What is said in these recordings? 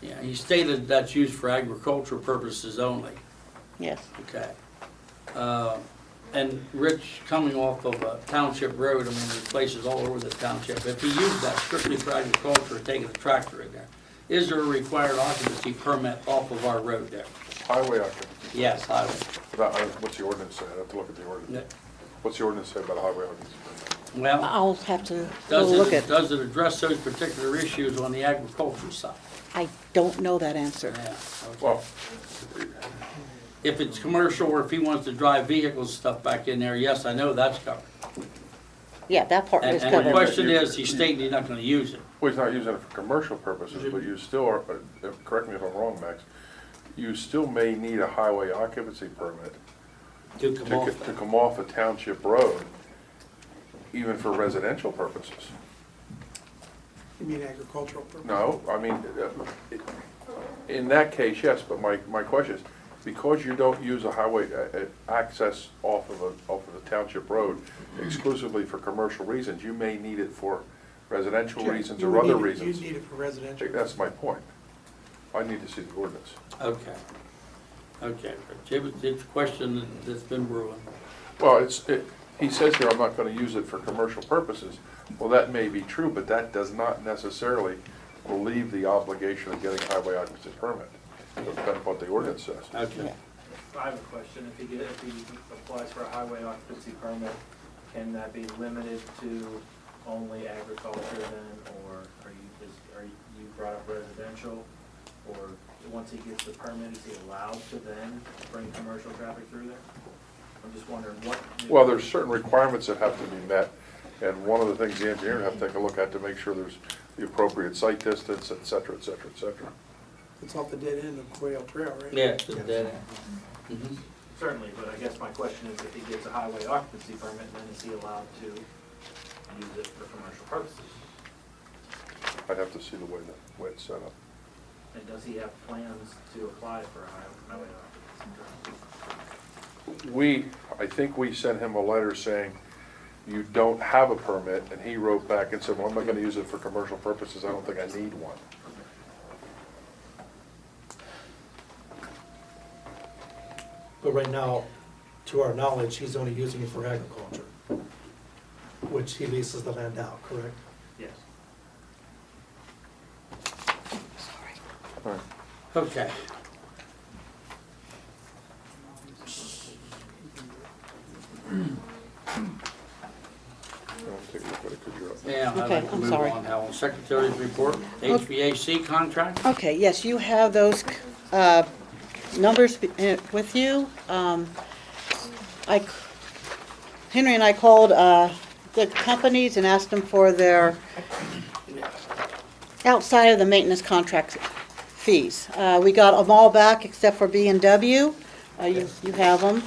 Yeah, he stated that's used for agricultural purposes only, Yes, okay? Uh, And Rich, coming off of uh, Township Road, I mean, there's places all over the township, if he used that strictly for agriculture, taking a tractor in there, is there a required occupancy permit off of our road there? Highway occupancy, Yes, I, about, uh, what's the ordinance say? I have to look at the no. ordinance. What's the ordinance say about a highway occupancy? well, I'll have to go does Uh, look it, at, does it address those particular issues on the agricultural side? I don't know that answer. Yeah, okay. Well, If it's commercial or if he wants to drive vehicles and stuff back in there, yes, I know that's covered. Yeah, that part And is and the covered. question is, he's stating he's not gonna use it. well, he's not using it for commercial purposes, but you still are, uh, correct me if I'm wrong, Max, you still may need a highway occupancy permit To to, co- to come off a township road, even for residential purposes. You mean agricultural purpose? No, I mean, uh, it- in that case, yes, but my, my question is, because you don't use a highway, uh, uh, access off of a, off of a township road exclusively for commercial reasons, you may need it for residential reasons You or would other need it- reasons. You'd need it for I residential. think That's my point. I need to see the ordinance. Okay. Okay, Rich, it was, it's a question that- that's been brewing. Well, it's, it, he says here, I'm not gonna use it for commercial purposes. Well, that may be true, but that does not necessarily relieve the obligation of getting highway occupancy permit. Depends on what the ordinance says. Okay. I have a question, if he get, if he applies for a highway occupancy permit, can that be limited to only agriculture then, or are you, is, are you, you brought up residential? Or once he gets the permit, is he allowed to then bring commercial traffic through there? I'm just wondering what. Well, there's certain requirements that have to be met, and one of the things the engineer would have to take a look at to make sure there's the appropriate site distance, et cetera, et cetera, et cetera. It's off the dead end of Quail Trail, right? Yeah, it's a dead end. Mhm. Certainly, but I guess my question is if he gets a highway occupancy permit, then is he allowed to use it for commercial purposes? I'd have to see the way the way it's set up. And does he have plans to apply for a highway highway occupancy permit? We, I think we sent him a letter saying, you don't have a permit, and he wrote back and said, well, I'm not gonna use it for commercial purposes, I don't think I need one. But right now, to our knowledge, he's only using it for agriculture, which he leases the land out, correct? Yes. All right. Okay. I'll take a look at it, 'cause you're up. Now, I'd Okay, like to I'm move sorry. on now. Secretary's report, HVAC contract? Okay, yes, you have those uh, numbers be- eh, with you. Um, I, c- Henry and I called uh, the companies and asked them for their outside of the maintenance contract fees. Uh, We got them all back except for B and W. Uh, You you have them.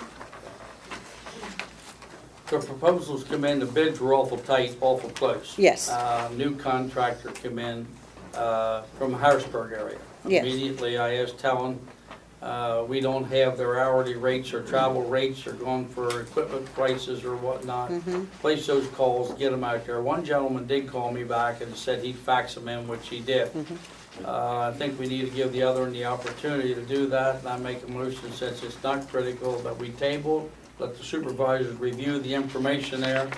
The proposals come in, the bids were awful tight, awful close. Yes. Uh, New contractor come in uh, from Harrisburg area. Yes. Immediately, I asked Talon, uh, we don't have their hourly rates or travel rates or going for equipment prices or whatnot. Mm-hmm. Place those calls, get them out there. One gentleman did call me back and said he'd fax them in, which he did. Mm-hmm. Uh, I think we need to give the other one the opportunity to do that, and I make a motion since it's not critical that we table, let the supervisors review the information there,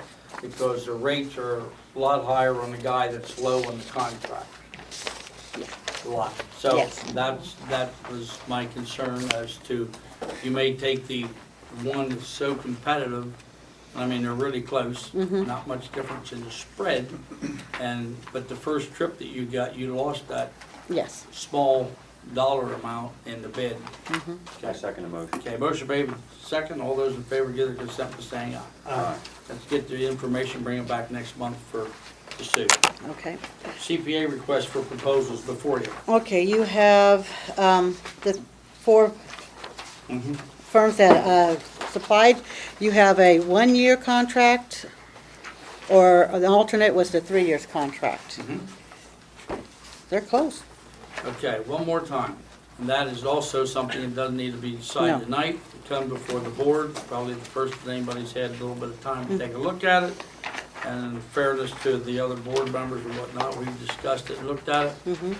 because the rates are a lot higher on the guy that's low on the contract. A lot. So Yes. that's, that was my concern as to, you may take the one that's so competitive, I mean, they're really close, not much difference in the spread, and, but the first trip that you got, you lost that Yes. small dollar amount in the bid. I second the motion. Okay, motion made, second, all those in favor give their consent by saying aye. Aye. Let's get the information, bring it back next month for the suit. Okay. CPA request for proposals before you. Okay, you have um, the four firms that uh, supplied. You have a one-year contract, or the alternate was the three years contract. They're close. Okay, one more time, and that is also something that doesn't need to be decided No. tonight. It Come before the board, probably the first that anybody's had a little bit of time to take a look at it. And in fairness to the other board members and whatnot, we've discussed it, looked at it.